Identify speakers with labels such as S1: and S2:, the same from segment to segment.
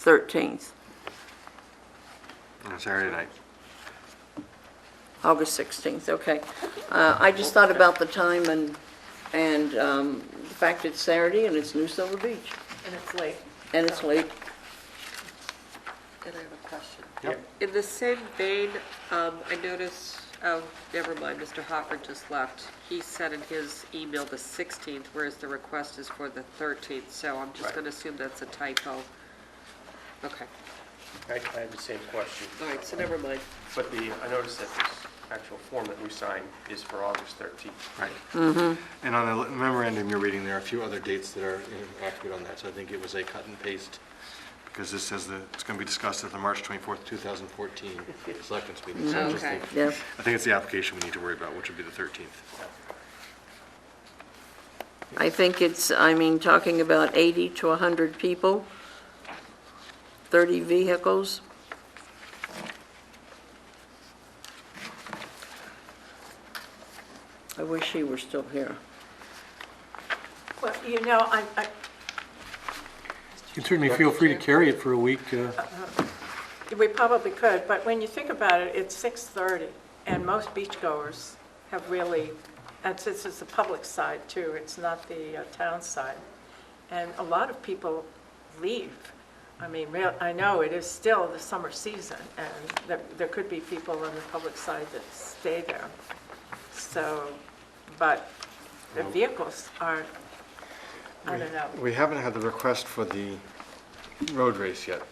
S1: 13th,
S2: on Saturday night.
S1: August 16th, okay. Uh, I just thought about the time and, and um, the fact it's Saturday and it's New Silver Beach,
S3: And it's late.
S1: and it's late.
S3: And I have a question.
S2: Yep.
S3: In the same vein, um, I noticed, oh, never mind, Mr. Hopper just left. He said in his email the 16th, whereas the request is for the 13th, so I'm just
S4: Right.
S3: going to assume that's a typo. Okay,
S4: I I had the same question.
S3: all right, so never mind.
S4: But the, I noticed that this actual form that we signed is for August 13th.
S2: Right.
S5: Mm-hmm.
S2: And on the memorandum you're reading, there are a few other dates that are inaccurate on that, so I think it was a cut and paste, because this says that it's going to be discussed at the March 24th, 2014 Selectments meeting. So just
S3: Okay.
S2: the-
S1: Yeah.
S2: I think it's the application we need to worry about, which would be the 13th.
S1: I think it's, I mean, talking about 80 to 100 people, 30 vehicles. I wish he were still here.
S5: Well, you know, I, I,
S6: You can certainly feel free to carry it for a week. uh,
S5: we probably could, but when you think about it, it's 6:30, and most beachgoers have really, and since it's the public side too, it's not the uh, town side, and a lot of people leave. I mean, real, I know it is still the summer season, and there, there could be people on the public side that stay there. So, but the vehicles are, I don't know.
S2: We haven't had the request for the road race yet,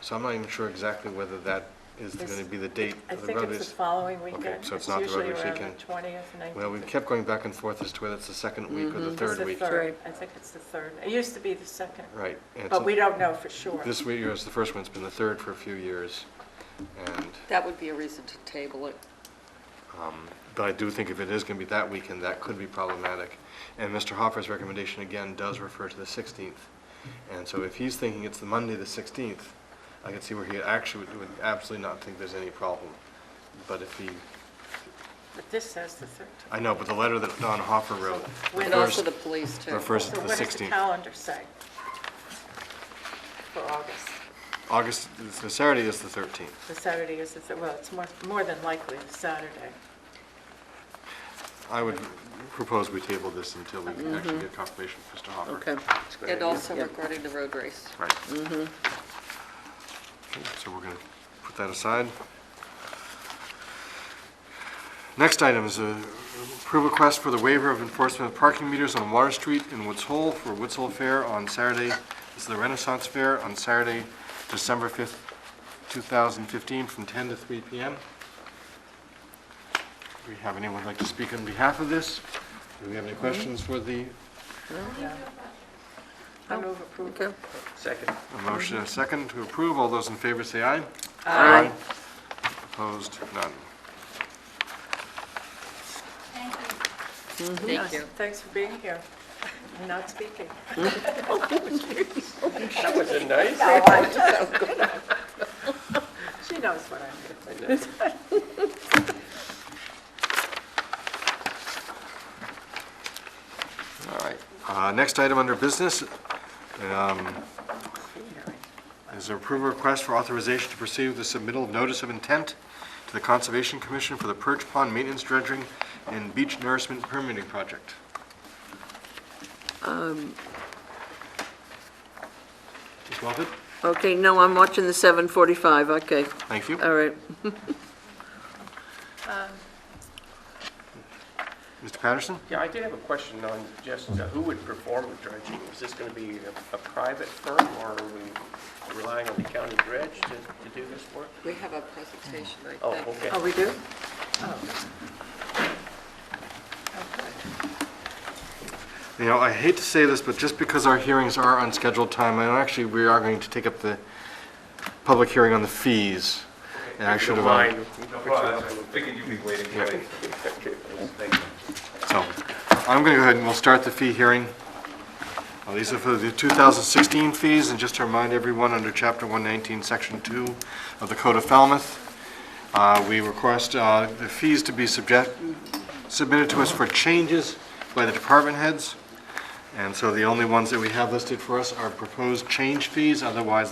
S2: so I'm not even sure exactly whether that is
S5: This-
S2: going to be the date
S5: I
S2: of the
S5: think
S2: road
S5: it's the
S2: race.
S5: following weekend.
S2: so it's not the road race
S5: usually around
S2: weekend.
S5: the 20th, 19th.
S2: Well, we kept going back and forth as to whether it's the second week or the
S5: It's
S2: third
S5: Mm-hmm. the
S2: week.
S5: third.
S1: Right.
S5: I think it's the third. It used to be the second,
S2: Right. and it's
S5: but
S2: a-
S5: we don't know for sure.
S2: This year is the first one, it's been the third for a few years, and,
S3: That would be a reason to table it.
S2: but I do think if it is going to be that weekend, that could be problematic. And Mr. Hoffer's recommendation again does refer to the 16th. And so if he's thinking it's the Monday, the 16th, I can see where he actually would- would absolutely not think there's any problem. But if he,
S5: But this says the 13th.
S2: I know, but the letter that Don Hoffer wrote
S3: And also
S2: refers,
S3: the police, too.
S2: refers to
S5: So
S2: the
S5: what does the
S2: 16th.
S5: calendar say for August?
S2: August, the Saturday is the 13th.
S5: The Saturday is, the thir- well, it's more, more than likely the Saturday.
S2: I would propose we table this until we can actually get confirmation from Mr. Hoffer.
S1: Okay.
S3: And also regarding the road race.
S2: Right. Okay, So we're going to put that aside. Next item is a approve request for the waiver of enforcement of parking meters on Water Street in Woods Hole for Woods Hole Fair on Saturday, this is the Renaissance Fair on Saturday, December 5th, 2015, from 10 to 3 p.m. Do we have anyone who'd like to speak on behalf of this? Do we have any questions for the
S3: Oh,
S5: I move approval.
S1: Okay.
S4: Second.
S2: A motion and a second to approve. All those in favor say aye.
S1: Aye.
S2: Opposed? None.
S3: Thank you.
S5: Thanks for being here and not speaking.
S4: That was a nice.
S5: She knows what I mean.
S4: I know.
S2: All right. Uh, Next item under business um, is approve request for authorization to proceed with the submittal of notice of intent to the Conservation Commission for the Perch Pond Maintenance Dredging and Beach Nourishment Permitting Project. Um, Ms. Moffett,
S1: Okay, no, I'm watching the 7:45, okay,
S2: thank you.
S1: all right.
S2: Mr. Patterson?
S4: Yeah, I did have a question on just uh, who would perform the dredging. Is this going to be a- a private firm, or are we relying on the county dredge to to do this work?
S3: We have a presentation, I think.
S4: Oh, okay.
S5: Oh, we do?
S2: You know, I hate to say this, but just because our hearings are on scheduled time, and actually, we are going to take up the public hearing on the fees. And I should have, uh,
S4: Mine.
S7: Well, I figured you'd be waiting for me. Thank you.
S2: so, I'm going to go ahead and we'll start the fee hearing. Uh, These are for the 2016 fees, and just to remind everyone, under Chapter 119, Section 2 of the Code of Falmouth, uh, we request uh, the fees to be subject, submitted to us for changes by the department heads. And so the only ones that we have listed for us are proposed change fees, otherwise